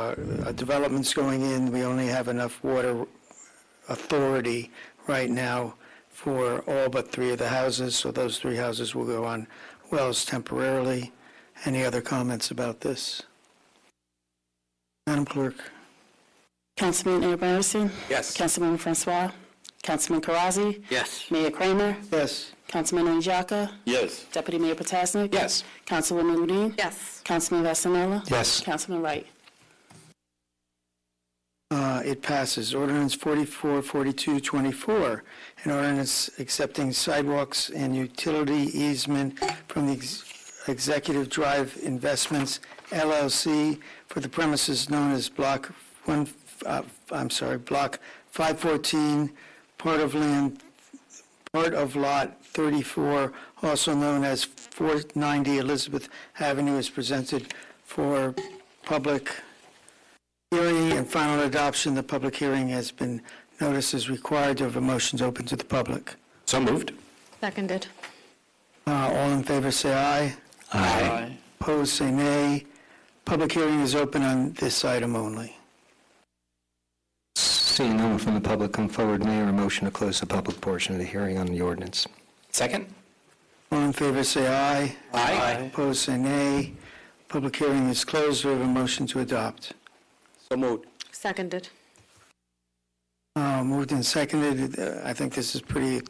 uh, developments going in, we only have enough water authority right now for all but three of the houses, so those three houses will go on wells temporarily. Any other comments about this? Madam Clerk? Councilman Mayor Barison. Yes. Councilman Francois. Councilman Karazi. Yes. Mayor Kramer. Yes. Councilman O'Nijaka. Yes. Deputy Mayor Potasnik. Yes. Councilwoman Udine. Yes. Councilman Vasanella. Yes. Councilman Wright. Uh, It passes. Ordinance 44, 42, 24, an ordinance accepting sidewalks and utility easement from the Ex- Executive Drive Investments LLC for the premises known as Block 1, uh, I'm sorry, Block 514, part of land part of Lot 34, also known as 490 Elizabeth Avenue, is presented for public hearing and final adoption. The public hearing has been noticed as required. Do I have a motion to open to the public? So moved. Seconded. Uh, All in favor, say aye. Aye. Opposed, say nay. Public hearing is open on this item only. Seeing no one from the public come forward, Mayor, a motion to close the public portion of the hearing on the ordinance. Second? All in favor, say aye. Aye. Opposed, say nay. Public hearing is closed. Do I have a motion to adopt? So moved. Seconded. Uh, Moved and seconded. Uh, I think this is pretty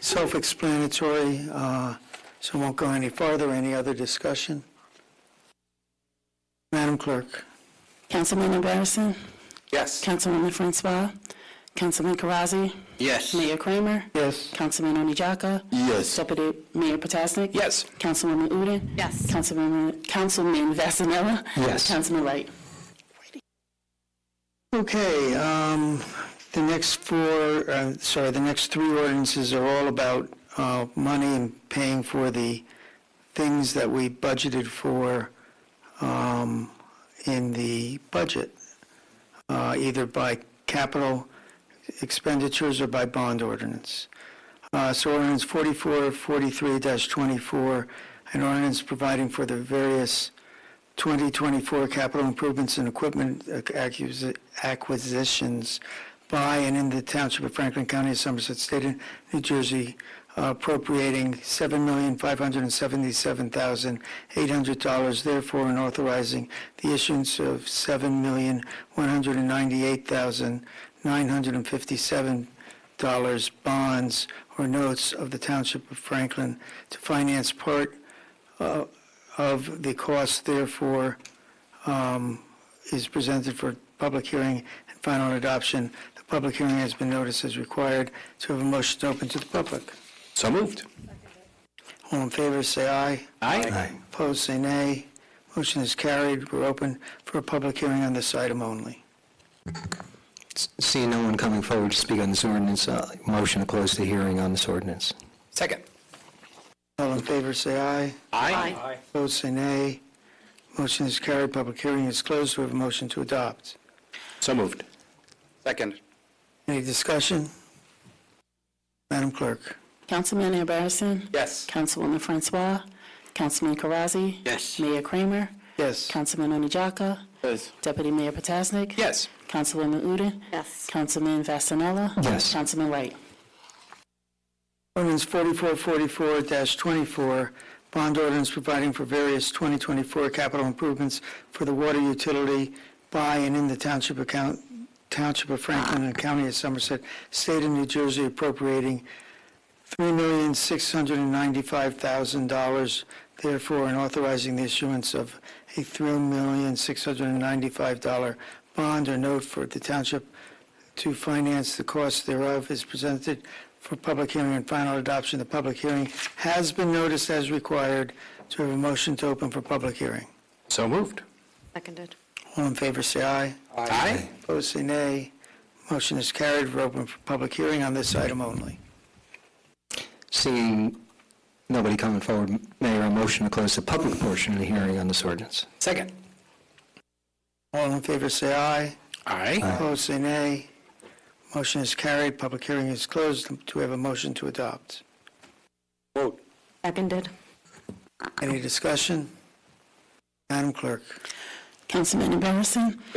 self-explanatory, uh, so won't go any farther. Any other discussion? Madam Clerk? Councilman Barison. Yes. Councilwoman Francois. Councilman Karazi. Yes. Mayor Kramer. Yes. Councilman O'Nijaka. Yes. Deputy Mayor Potasnik. Yes. Councilwoman Udine. Yes. Councilwoman, Councilman Vasanella. Yes. Councilman Wright. Okay, um, the next four, uh, sorry, the next three ordinances are all about uh, money and paying for the things that we budgeted for um, in the budget, uh, either by capital expenditures or by bond ordinance. Uh, So ordinance 4443-24, an ordinance providing for the various 2024 capital improvements and equipment acquisi- acquisitions by and in the Township of Franklin County, Somerset State, and New Jersey, appropriating $7,577,800, therefore, and authorizing the issuance of $7,198,957 dollars bonds or notes of the Township of Franklin to finance part uh, of the cost therefore um, is presented for public hearing and final adoption. The public hearing has been noticed as required to have a motion open to the public. So moved. All in favor, say aye. Aye. Opposed, say nay. Motion is carried. We're open for a public hearing on this item only. S- Seeing no one coming forward to speak on this ordinance, uh, motion to close the hearing on this ordinance. Second? All in favor, say aye. Aye. Opposed, say nay. Motion is carried. Public hearing is closed. We have a motion to adopt. So moved. Second? Any discussion? Madam Clerk? Councilman Mayor Barison. Yes. Councilwoman Francois, Councilman Karazi, Yes. Mayor Kramer, Yes. Councilman Onijaka, Yes. Deputy Mayor Potasnik, Yes. Councilwoman Udine, Yes. Councilman Vasanella, Yes. Councilman Wright. Ordinance 4444-24, bond ordinance providing for various 2024 capital improvements for the water utility by and in the Township of Count- Township of Franklin and County of Somerset, State of New Jersey appropriating $3,695,000, therefore, and authorizing the issuance of a $3,695 bond or note for the township to finance the cost thereof is presented for public hearing and final adoption. The public hearing has been noticed as required. to have a motion to open for public hearing? So moved. Seconded. All in favor, say aye. Aye. Opposed, say nay. Motion is carried. We're open for public hearing on this item only. Seeing nobody coming forward, Mayor, a motion to close the public portion of the hearing on this ordinance. Second? All in favor, say aye. Aye. Opposed, say nay. Motion is carried. Public hearing is closed. Do we have a motion to adopt? Vote. Seconded. Any discussion? Madam Clerk? Councilman Embarrasson?